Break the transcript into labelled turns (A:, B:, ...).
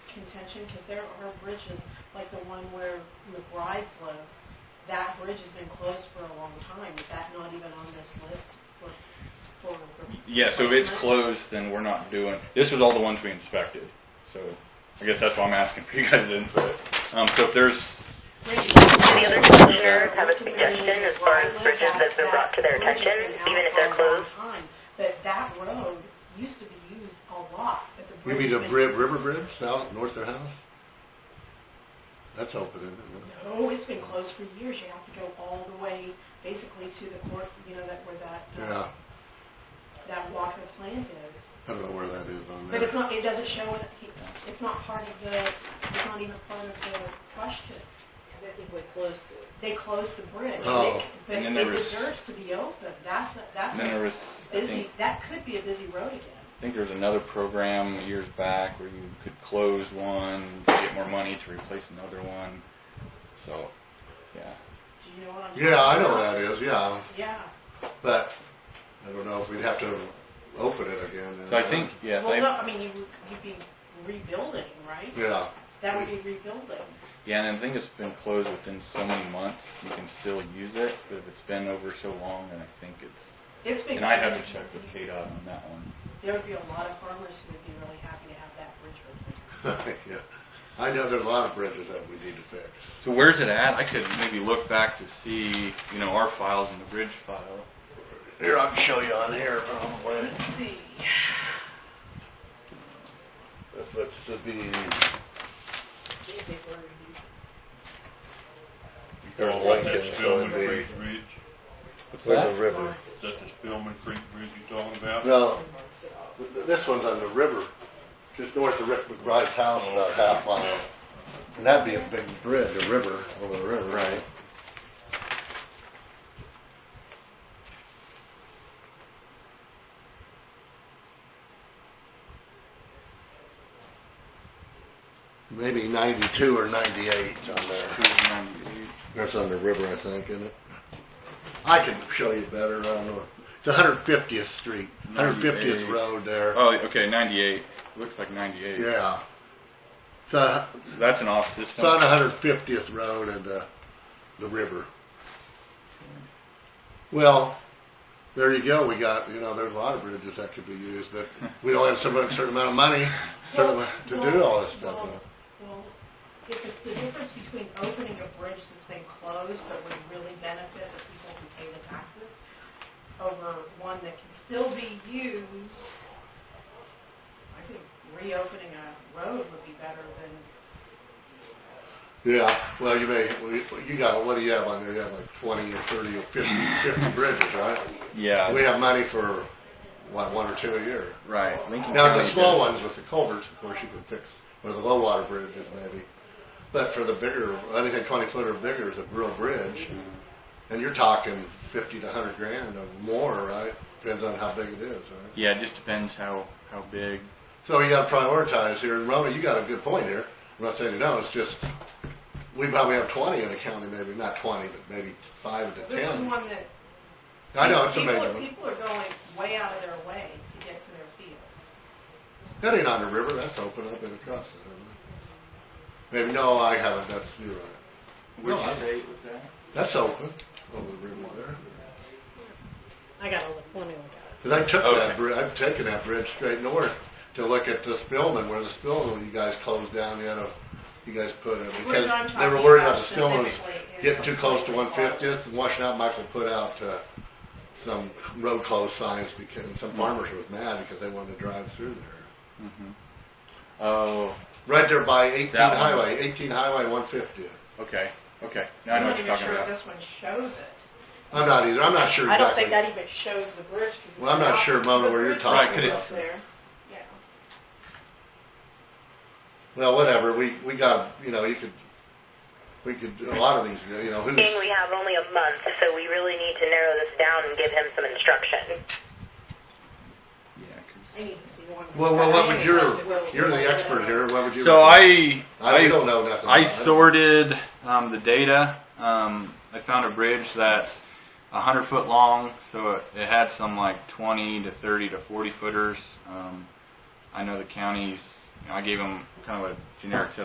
A: contention? Because there are bridges, like the one where McBride's live, that bridge has been closed for a long time. Is that not even on this list for, for?
B: Yeah, so if it's
A: replacement?
B: closed, then we're not doing, this was all the ones we inspected, so I guess that's why I'm asking for you guys' input. Um, so if there's,
C: Any other commissioners have a suggestion as far as bridges that's been brought to their attention, even if they're closed?
A: But that road used to be used a lot, but the
D: You
A: bridge.
D: mean
A: has
D: the
A: been-
D: Bri- River Bridge south, north of their house? That's open, isn't it?
A: No, it's been closed for years. You have to go all the way, basically to the court, you know, that where that,
D: Yeah,
A: uh, that Walker plant is.
D: I don't know where that is on there.
A: But it's not, it doesn't show it, it's not part of the, it's not even part of the question.
E: Because I think we closed it.
A: They closed the bridge.
D: Oh.
A: They- but
B: And then
A: It
B: there was-
A: deserves to be open. That's, a- that's
B: then there
A: a
B: was, I
A: busy,
B: think,
A: that could be a busy road again.
B: I think there was another program years back where you could close one, get more money to replace another one, so, yeah.
A: Do you know what I'm talking about?
D: Yeah, I know where that is, yeah,
A: Yeah.
D: but I don't know if we'd have to open it again.
B: So I think, yes,
A: Well, no,
B: I,
A: I mean, you, you'd be rebuilding, right?
D: Yeah,
A: That would be rebuilding.
B: yeah, and I think it's been closed within so many months, you can still use it, but if it's been over so long, then I think it's,
A: It's been.
B: and I have to check with KDOT on that one.
A: There would be a lot of farmers who would be really happy to have that bridge open.
D: yeah. I know there's a lot of bridges that we need to fix.
B: So where's it at? I could maybe look back to see, you know, our files in the bridge file.
D: Here, I can show you on here um, probably.
A: Let's see.
D: If it's to be, There's Lincoln,
F: That's
D: so it'd
F: Spillman
D: be
F: Creek Bridge,
D: with the river.
F: is that the Spillman Creek Bridge you talking about?
D: No, th- th- this one's on the river, just north of Rick McBride's house, about half mile. And that'd be a big bridge, a river, over the river. Right. Maybe ninety-two or ninety-eight on there. That's on the river, I think, isn't it? I can show you better, I don't know. It's 150th Street, 150th
B: 98.
D: Road there.
B: Oh, okay, 98. Looks like 98.
D: Yeah. It's on,
B: So that's an off system.
D: it's on 150th Road and uh, the river. Well, there you go. We got, you know, there's a lot of bridges that could be used, but we don't have so much, certain amount of money certain amount to do all this stuff.
A: Well, well, if it's the difference between opening a bridge that's been closed but would really benefit the people who pay the taxes over one that can still be used, I think reopening a road would be better than,
D: Yeah, well, you may, you got, what do you have on there? You have like 20 or 30 or 50, 50 bridges, right?
B: yeah.
D: We have money for, what, one or two a year.
B: Right. Lincoln
D: Now, the
B: County
D: small
B: does-
D: ones with the culverts, of course, you can fix, or the low water bridges maybe. But for the bigger, anything twenty foot or bigger is a real bridge. And you're talking fifty to hundred grand or more, right? Depends on how big it is, right?
B: Yeah, it just depends how, how big.
D: So you gotta prioritize here. And Rona, you got a good point here. I'm not saying you don't, it's just, we probably have twenty in the county, maybe, not twenty, but maybe five to
A: this is
D: ten.
A: one that.
D: I know, it's a
A: people
D: major
A: are-
D: one.
A: People are going way out of their way to get to their fields.
D: That ain't on the river, that's open up and across it, isn't it? Maybe, no, I haven't, that's, you're right.
B: What
D: No,
B: did
D: I-
B: you say with that?
D: That's open. Over the river there.
E: I gotta look, let me look at
D: Because I took
B: Okay.
D: that bridge, I've taken that bridge straight north to look at the Spillman, where the Spillman you guys closed down, you know, you guys put it. Because
A: I'm
D: they were
A: talking
D: worried about
A: about
D: the Spillman was
A: specifically is
D: getting too close to one
A: completely
D: fiftieth and washing out. Michael put out, uh, some road closed signs because, and some farmers was mad because they wanted to drive through there.
B: Mm-hmm. Oh,
D: Right there by eighteen
B: That one.
D: highway, eighteen highway one fiftieth.
B: okay. Okay. Now I know what
A: I'm not even
B: you're talking
A: sure if
B: about.
A: this one shows it.
D: I'm not either, I'm not sure
E: it. I
D: exactly.
E: don't think that even shows the bridge. 'cause
D: Well, I'm not
E: it's
D: sure, Mona,
E: the
D: where you're
E: bridge
D: talking
B: Right, 'cause
E: that's
D: about.
E: there.
A: Yeah.
D: Well, whatever, we, we got, you know, you could, we could, a lot of these, you know, who's.
C: Being we have only a month, so we really need to narrow this down and give him some instruction.
B: Yeah, 'cause-
E: I need to see one.
D: Well, well, what would your,
E: Well,
D: you're
E: well,
D: the expert here, what would you?
B: So I,
D: I don't know nothing about
B: I
D: it.
B: sorted um, the data. Um, I found a bridge that's hundred foot long, so it, it had some like twenty to thirty to forty footers. Um, I know the county's You know, I gave them kind of a generic set